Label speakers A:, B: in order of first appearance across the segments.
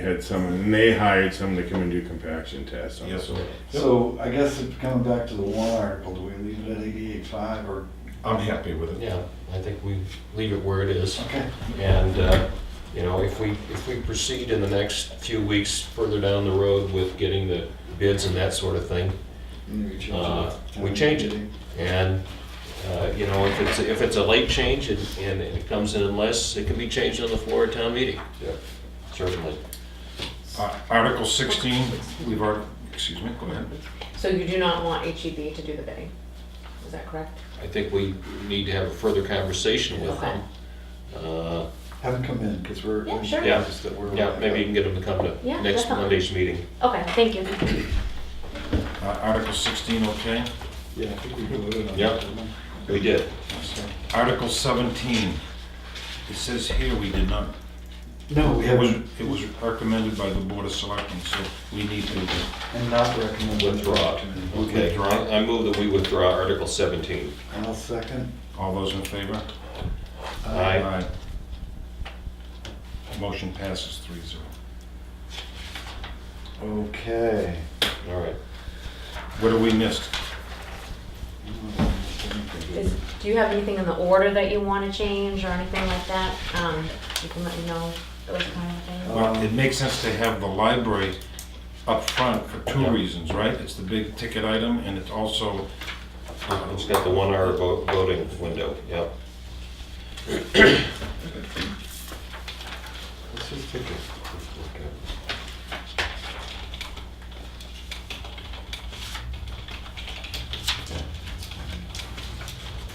A: had someone, and they hired someone to come and do compaction tests on the
B: Yep.
A: soil.
C: So I guess it- coming back to the warrant article, do we leave it at eighty-eight five or?
B: I'm happy with it.
D: Yeah, I think we leave it where it is.
C: Okay.
D: And, uh, you know, if we, if we proceed in the next few weeks further down the road with getting the bids and that sort of thing,
C: Then we change it.
D: Uh, we change it. and, uh, you know, if it's, if it's a late change and, and it comes in unless, it can be changed on the floor of town meeting.
B: Yeah.
D: Certainly.
B: Uh, Article sixteen, we've already, excuse me, go ahead.
E: So you do not want HEB to do the bidding, is that correct?
D: I think we need to have a further conversation with them. Uh,
C: Have them come in, because we're.
E: Yeah, sure.
D: Yeah.
C: just that we're- uh,
D: Yeah, maybe you can get them to come to
E: Yeah,
D: next
E: definitely.
D: Monday's meeting.
E: Okay, thank you.
B: Uh, Article sixteen, okay?
C: Yeah, I think we voted on that.
D: Yep.
C: didn't
D: We did.
B: Article seventeen, it says here we did not,
C: we? No, we
B: it was,
C: haven't,
B: it was recommended by the Board of Selectmen, so we need to
C: and not recommend.
D: Withdraw. Okay,
B: Withdraw.
D: I I move that we withdraw Article 17.
C: I'll second.
B: All those in favor?
D: Aye.
B: Motion passes three zero.
C: Okay.
D: All right.
B: What have we missed?
E: Is, do you have anything in the order that you want to change or anything like that? Um, you can let me know, those kind of things.
D: Um,
B: Well, it makes sense to have the library up front for two reasons, right? It's the big ticket item and it's also,
D: Uh, It's got the one-hour vo- voting window, yep.
C: Let's just take a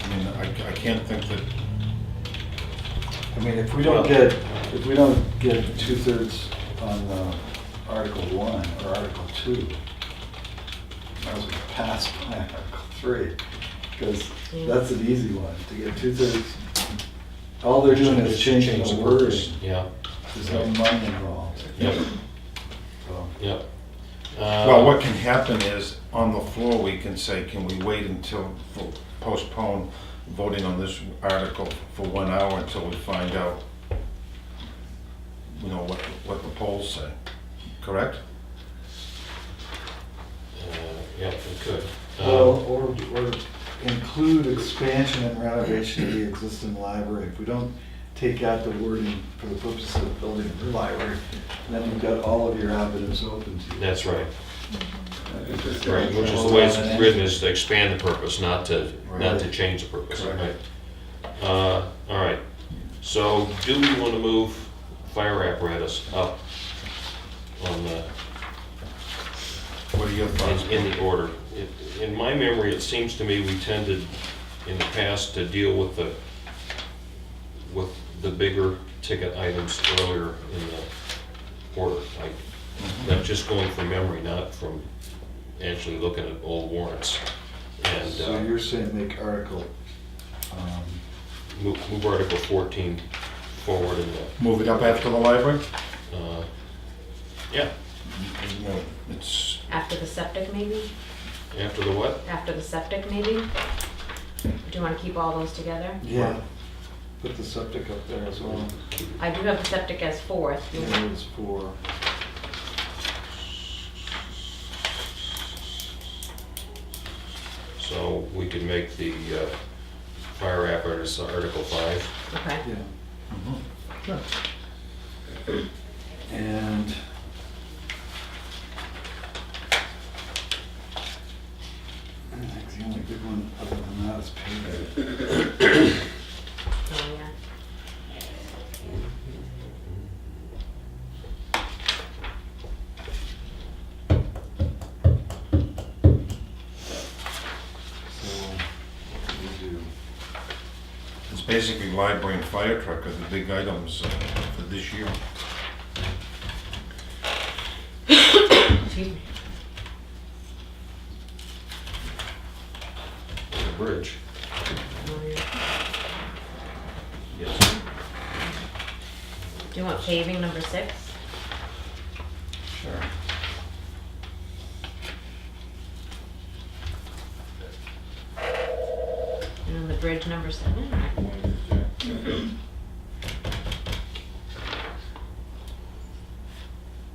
B: I mean, I I can't think that,
C: I mean, if we don't get, if we don't get two-thirds on uh, Article One or Article Two, I would pass by Article Three, because that's an easy one, to get two-thirds. All they're doing is changing the words,
D: Yeah,
C: there's no money involved,
D: yep,
C: so.
D: yep.
B: well, what can happen is, on the floor, we can say, can we wait until, postpone voting on this article for one hour until we find out, you know, what, what the polls say, correct?
D: Yep, we could.
C: Well,
D: Um,
C: or, or include expansion and renovation of the existing library. If we don't take out the wording for the purpose of building a new library, then you've got all of your avenues open to you.
D: That's right,
C: I think that's-
D: right, which is the way it's written, is to expand the purpose, not to, not to
C: Right.
D: change the purpose, right?
C: Correct.
D: Uh, All right, so do we want to move fire apparatus up on the
B: What are your thoughts?
D: in, in the order. It- In my memory, it seems to me we tended in the past to deal with the, with the bigger ticket items earlier in the order. I- I'm just going from memory, not from actually looking at old warrants. And
C: So
D: uh,
C: you're saying make article, um,
D: move, move Article 14 forward in
B: Move it up after the library?
D: the, uh, yeah,
B: No, It's,
E: After the septic, maybe?
D: after the what?
E: After the septic, maybe? Do you want to keep all those together?
C: yeah, put the septic up there as well.
E: I do have the septic as fourth.
C: There is four.
D: So we can make the uh, fire apparatus Article 5.
E: Okay.
C: Yeah. And. I think the only good one other than that is paving.
E: Oh, yeah.
C: So, what do we do?
B: it's basically library and fire truck are the big items uh, for this year.
E: Excuse me.
D: The bridge.
E: Oh, yeah.
D: Yes.
E: Do you want paving number six?
C: Sure.
E: And then the bridge number seven?